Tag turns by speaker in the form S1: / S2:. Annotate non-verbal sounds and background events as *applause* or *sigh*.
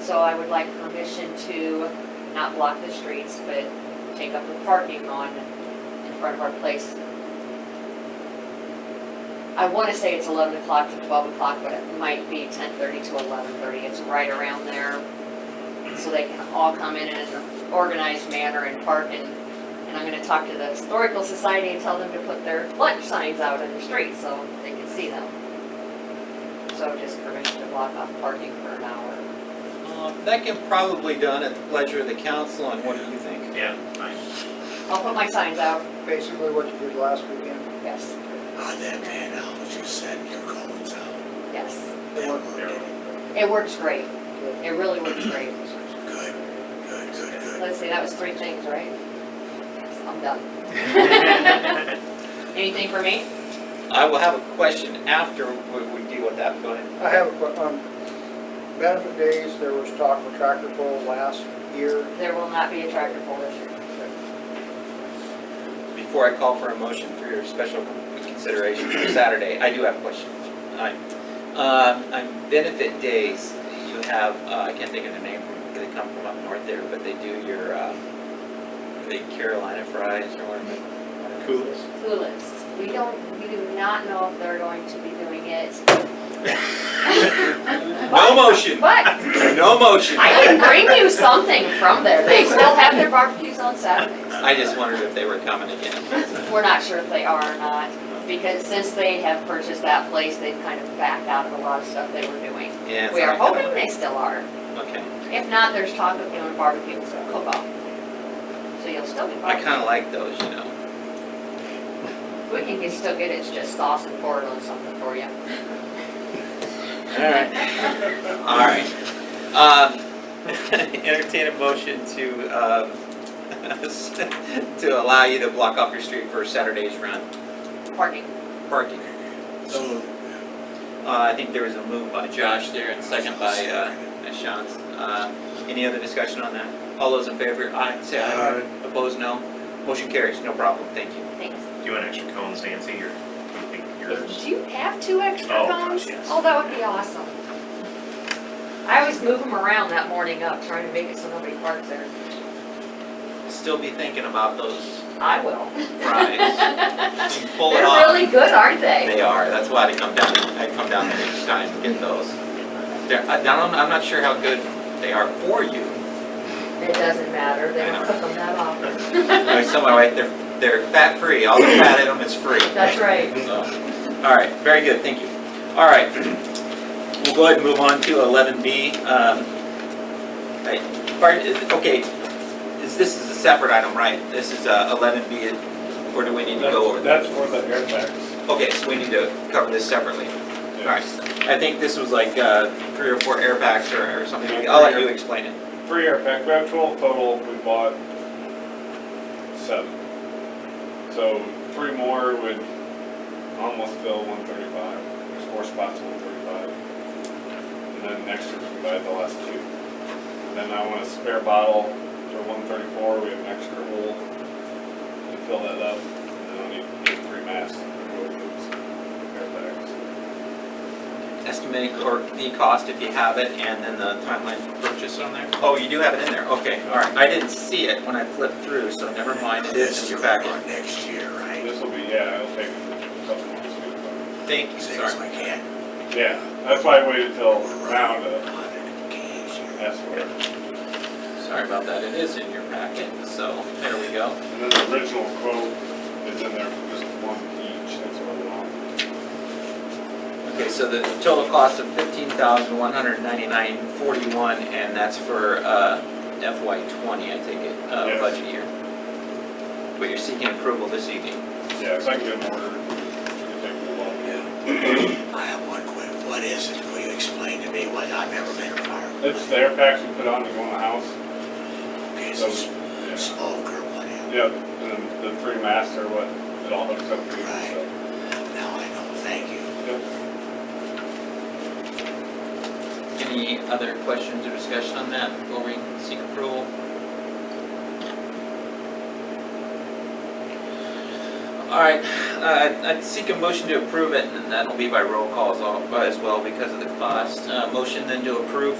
S1: So I would like permission to not block the streets, but take up the parking on, in front of our place. I want to say it's 11 o'clock to 12 o'clock, but it might be 10:30 to 11:30. It's right around there. So they can all come in in an organized manner and park and, and I'm going to talk to the Historical Society and tell them to put their lunch signs out in the street so they can see them. So just permission to block off parking for an hour.
S2: Um, That can probably done at the pleasure of the council, and what do you think?
S3: Yeah, nice.
S1: I'll put my signs out,
S4: Basically what you did last weekend,
S1: yes,
S5: On Ah, that panel, what you said, your cones out.
S1: yes.
S4: it worked.
S1: It works great.
S4: Good.
S1: It really works great.
S5: Good, good, good, good.
S1: Let's see, that was three things, right? Yes, I'm *laughs* done. Anything for me?
S2: I will have a question after we we deal with that, go ahead.
S4: I have a que- on benefit days, there was talk of tractor pull last year.
S1: There will not be a tractor pull this year.
S2: Before I call for a motion for your special consideration for Saturday, I do have a question. Hi. Um, On benefit days, you have, uh, I can't think of the name, they come from up north there, but they do your, uh, the Carolina fries or whatever.
S3: Coolers.
S1: Clueless. We don't, we do not know if they're going to be doing it.
S2: No motion,
S1: But
S2: no motion.
S1: I can bring you something from there. They still have their barbecues on Saturdays.
S2: I just wondered if they were coming again.
S1: We're not sure if they are or not, because since they have purchased that place, they've kind of backed out of a lot of stuff they were doing.
S2: Yeah, it's
S1: We are
S2: not gonna-
S1: hoping they still are.
S2: Okay.
S1: If not, there's talk of doing barbecues and cook-off. So you'll still be
S2: I kind
S1: barbecuing.
S2: of like those, you know.
S1: We can get- still get it, it's just sauce and pour it on something for you.
S2: All right. Um, *laughs* Entertain a motion to, um, *laughs* to allow you to block off your street for Saturday's run,
S1: Parking.
S2: parking.
S5: So,
S2: Uh, I think there was a move by Josh there and second by uh, Sean. Uh, Any other discussion on that? All those in favor, aye, say aye. Opposed, no. Motion carries, no problem, thank you.
S1: Thanks.
S3: Do you want extra cones, Nancy, or do you think
S1: If
S3: yours?
S1: you have two extra
S3: Oh, gosh,
S1: cones,
S3: yes.
S1: oh, that would be awesome. I always move them around that morning up, trying to make it so nobody parks there.
S2: Still be thinking about those
S1: I will.
S2: fries. You Pull it
S1: They're
S2: off.
S1: really good, aren't they?
S2: They are, that's why I come down, I come down there each time to get those. They're, I don't, I'm not sure how good they are for you.
S1: It doesn't matter, they don't cook them that often.
S2: Like some, are like, they're, they're fat-free, all the fat in them is free.
S1: That's right.
S2: So, All right, very good, thank you. All right, we'll go ahead and move on to eleven B. Um, Okay, is, this is a separate item, right? This is uh, eleven B, or do we need to go over? that?
S6: That's for the air tax.
S2: Okay, so we need to cover this separately. All right, I think this was like uh, three or four airbags or or something. I'll let you explain it.
S6: Three air pack, we have twelve total, we bought seven. So three more would almost fill one thirty-five, there's four spots, one thirty-five. And then next year we buy the last two. And then I want a spare bottle for one thirty-four, we have an extra hole, and fill that up, and then I'll need, need three masks to go with those air packs.
S2: Estimate or the cost if you have it, and then the timeline for purchase on there. Oh, you do have it in there, okay, all right. I didn't see it when I flipped through, so never mind, it is
S5: this
S2: in
S5: is
S2: your
S5: for
S2: packet.
S5: next year, right?
S6: This will be, yeah, it'll take a couple months to get it.
S2: Thank you,
S5: Seems
S2: sorry.
S5: like that.
S6: Yeah, that's why I waited till now to
S5: Hundred Ks here.
S6: ask for it.
S2: Sorry about that, it is in your packet, so there we go.
S6: And then the original quote is in there for just one each, that's what I want.
S2: Okay, so the total cost of fifteen thousand one hundred ninety-nine forty-one, and that's for uh, FY twenty, I take it, uh,
S6: Yes.
S2: budget year. But you're seeking approval this evening.
S6: Yeah, so I can get an order, it take me a while.
S5: Yeah. I have one quick, what is it? Will you explain to me what, I've never been a fireman.
S6: It's the air packs we put on to go in the house,
S5: Okay,
S6: so,
S5: so s-
S6: yeah.
S5: smoke or whatever.
S6: Yep, and then the three masks are what it all hooks up to, so.
S5: Now I know, thank you.
S6: Yep.
S2: Any other questions or discussion on that before we seek approval? All right, uh, I'd seek a motion to approve it, and that'll be by roll calls all- as well because of the cost. Uh, Motion then to approve